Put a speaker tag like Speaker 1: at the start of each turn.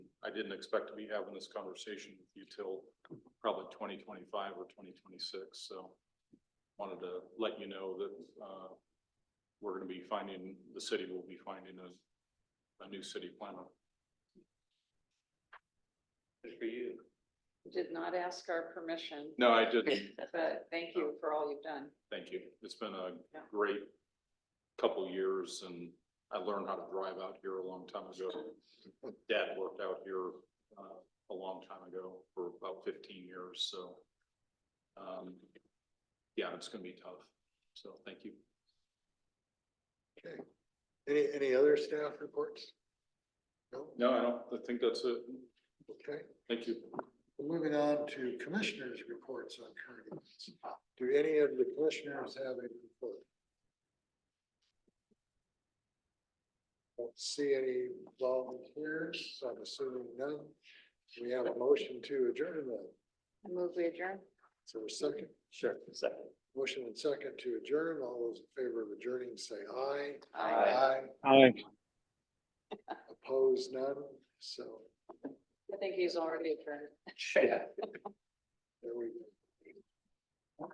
Speaker 1: didn't expect to be having this conversation with you till probably twenty twenty-five or twenty twenty-six, so. Wanted to let you know that, uh, we're gonna be finding, the city will be finding a, a new city planner.
Speaker 2: Good for you.
Speaker 3: You Did not ask our permission,
Speaker 1: No, I didn't,
Speaker 3: but thank you for all you've done.
Speaker 1: Thank you. It's been a
Speaker 3: Yeah.
Speaker 1: great couple years and I learned how to drive out here a long time ago. Dad worked out here uh, a long time ago for about fifteen years, so. um, Yeah, it's gonna be tough. So thank you.
Speaker 4: Okay. Any, any other staff reports? No,
Speaker 1: No, I don't, I think that's it.
Speaker 4: okay.
Speaker 1: Thank you.
Speaker 4: Moving on to commissioners' reports on current events. Do any of the commissioners have a report? Don't see any volunteers, so I'm assuming none. We have a motion to adjourn then.
Speaker 3: I move we adjourn.
Speaker 4: Is there a second?
Speaker 2: Sure, second.
Speaker 4: Motion and second to adjourn. All those in favor of adjourning, say aye.
Speaker 2: Aye.
Speaker 5: Aye.
Speaker 4: Opposed, none. So
Speaker 3: I think he's already adjourned.
Speaker 2: Yeah.